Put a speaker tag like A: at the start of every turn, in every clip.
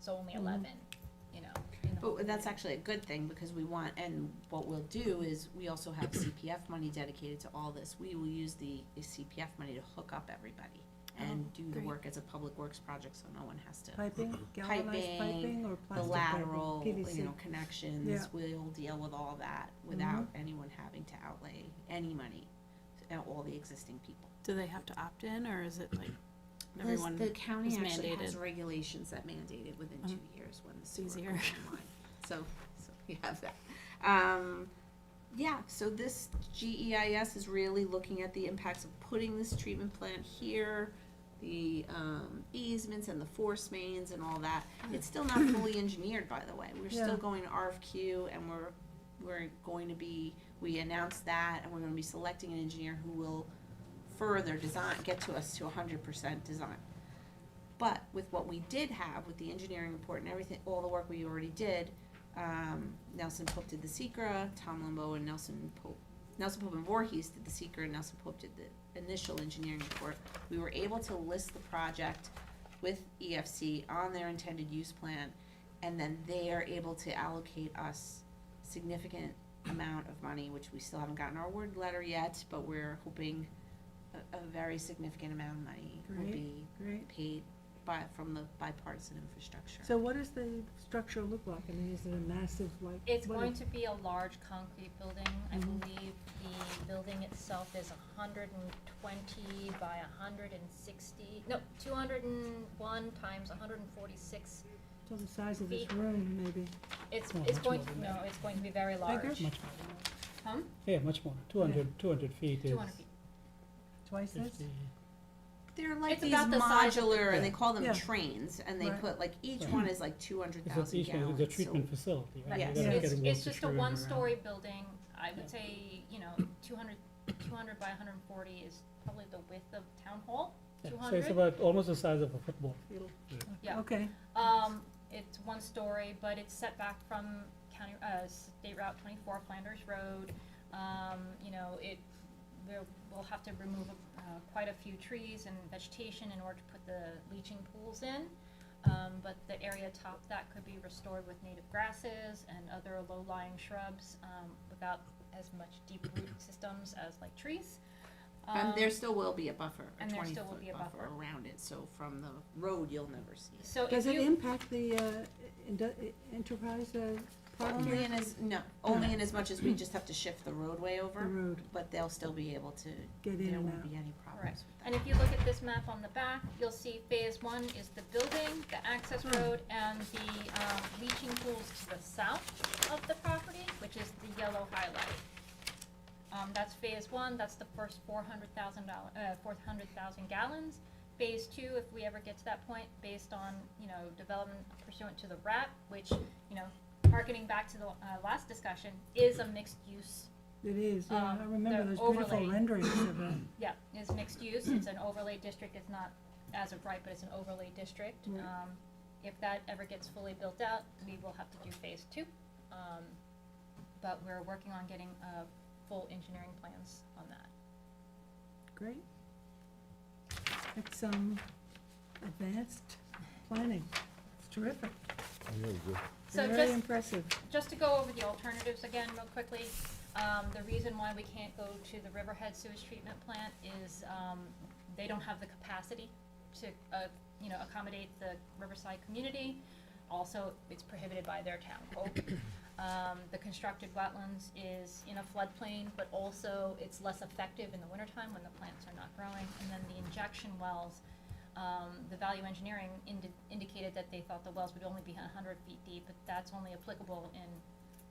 A: so only
B: Mm-hmm.
A: eleven, you know. in the whole
C: But that's
A: year.
C: actually a good thing, because we want, and what we'll do is, we also have CPF money dedicated to all this. We will use the CPF money to hook up everybody and do the
D: great.
C: work as a public works project, so no one has to.
E: Piping, galvanized
C: Piping,
E: piping or
C: The
E: plastic piping,
C: lateral, you Mm-hmm.
E: PVC.
C: know, connections,
E: Yeah.
C: we'll deal with all that without anyone having to outlay any money, and all the existing people.
D: Do they have to opt in, or is it like
C: Plus,
D: everyone?
C: The county
D: is
C: actually has
D: mandated.
C: regulations that mandate it within two years when the sewer
D: easier.
C: goes online. So, so we have that. Um, yeah, so this GEIS is really looking at the impacts of putting this treatment plant here, the, um, easements and the force mains and all that. It's still not fully engineered, by the way. We're
E: Yeah.
C: still going to RFQ and we're, we're going to be, we announced that and we're gonna be selecting an engineer who will further design, get to us to hundred percent design. But with what we did have, with the engineering report and everything, all the work we already did, um, Nelson Pope did the secra, Tom Limbo and Nelson Pope, Nelson Pope and Voorhees did the secra, and Nelson Pope did the initial engineering report. We were able to list the project with EFC on their intended use plan, and then they are able to allocate us significant amount of money, which we still haven't gotten our word letter yet, but we're hoping a, a very significant amount of money will
E: Great.
C: be
E: Great.
C: paid by, from the bipartisan infrastructure.
E: So what does the structure look like? I mean, is it a massive, like?
A: It's
E: what
A: going
E: is-
A: to be a large concrete building. I
C: Mm-hmm.
E: Mhm.
A: believe the building itself is hundred and twenty by hundred and sixty, no, two hundred and one times hundred and forty-six.
E: So the size of this
A: feet.
E: room, maybe?
A: It's,
B: Oh,
A: it's
B: much
A: going,
B: more
A: to
B: than
A: no,
B: that.
A: it's going to be very large.
E: Bigger?
B: Much
A: Huh?
B: Yeah, much more. 200, 200 feet is
A: Two hundred feet.
E: Twice this?
B: 50.
C: They're like
A: It's
C: these
A: about the size of the-
C: modular, and they call them
E: Yeah. Hmm.
C: trains, and they
E: Right.
C: put, like, each
B: Right.
C: one is like two hundred
B: It's a,
C: thousand
B: each one
C: gallons.
B: is a
C: so-
B: treatment facility, right?
C: Yes.
B: You're
E: Yeah.
B: not
A: It's,
B: getting
A: it's
B: water
A: just a
B: strewn around.
A: one-story building. I
B: Yeah.
A: would say, you know, 200 200 by hundred and forty is probably the width of town hall,
B: Yeah,
A: two
B: So it's
A: hundred.
B: about almost the size of a football.
A: Yeah.
E: Okay,
A: Um, it's one story, but it's set back from county, uh, State Route twenty-four, Flanders Road. Um, you know, it, we'll, we'll have to remove, uh, quite a few trees and vegetation in order to put the leaching pools in. Um, but the area atop that could be restored with native grasses and other low-lying shrubs, um, without as much deep root systems as like trees.
C: And
A: Um,
C: there still will be a buffer, a
A: and there
C: twenty
A: still will be
C: foot
A: a
C: buffer
A: buffer.
C: around it, so from the road, you'll never see it.
A: So if
E: does it
A: you,
E: impact the, uh, indu- enterprise, uh, park
C: Only
E: here?
C: in as, no, only in as much as we just have to shift the roadway
E: The
C: over,
E: road,
C: but they'll still be able to,
E: get in
C: there
E: and
C: won't
E: out.
C: be any problems with
A: And
C: that.
A: if you look at this map on the back, you'll see phase one is the building, the access road, and the um, leaching pools to the south of the property, which is the yellow highlight. Um, that's phase one, that's the first four hundred thousand dollar, uh, four hundred thousand gallons. Phase two, if we ever get to that point, based on, you know, development pursuant to the RAP, which, you know, harkening back to the, uh, last discussion, is a mixed use
E: It is, yeah,
A: um,
E: I remember
A: the
E: those beautiful
A: overlay.
E: renderings of it.
A: Yeah, it's mixed use, it's an overlay district, it's not as of right, but it's an overlay district.
E: Right.
A: Um, if that ever gets fully built out, we will have to do phase two. Um, but we're working on getting, uh, full engineering plans on that.
E: Great. It's, um, advanced planning. It's terrific.
F: Really good.
A: So
E: Very
A: just,
E: impressive.
A: just to go over the alternatives again real quickly, um, the reason why we can't go to the Riverhead sewage treatment plant is, um, they don't have the capacity to, uh, you know, accommodate the Riverside community. Also, it's prohibited by their town code. Um, the constructed wetlands is in a floodplain, but also it's less effective in the wintertime when the plants are not growing. And then the injection wells, um, the value engineering indi- indicated that they thought the wells would only be hundred feet deep, but that's only applicable in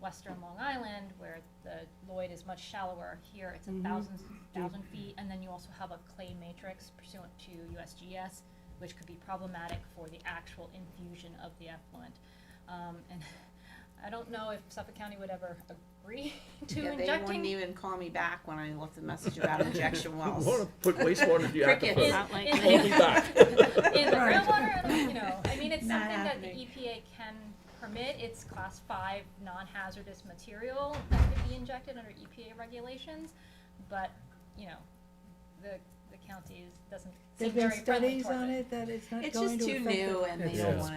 A: western Long Island where the Lloyd is much shallower. Here, it's a
E: Mhm.
A: thousand, thousand feet, and then you also have a clay matrix pursuant to USGS, which could be problematic for the actual infusion of the effluent. Um, and I don't know if Suffolk County would ever agree to
C: Yeah, they wouldn't
A: injecting.
C: even call me back when I left a message about injection wells.
G: want to put wastewater to the
C: Cricket.
G: aquifer.
C: Not like-
A: in-
G: Call me back.
A: in the
E: Right.
A: groundwater, and, you know, I mean, it's
C: Not
A: something that the
C: happening.
A: EPA can permit, it's class five non-hazardous material that could be injected under EPA regulations, but, you know, the, the county is, doesn't seem
E: There've
A: very
E: been
A: friendly
E: studies
A: towards
E: on
A: it.
E: it that it's not
C: It's
E: going
C: just
E: to
C: too
E: affect the-
C: new and they
B: It's
C: don't
B: just
C: wanna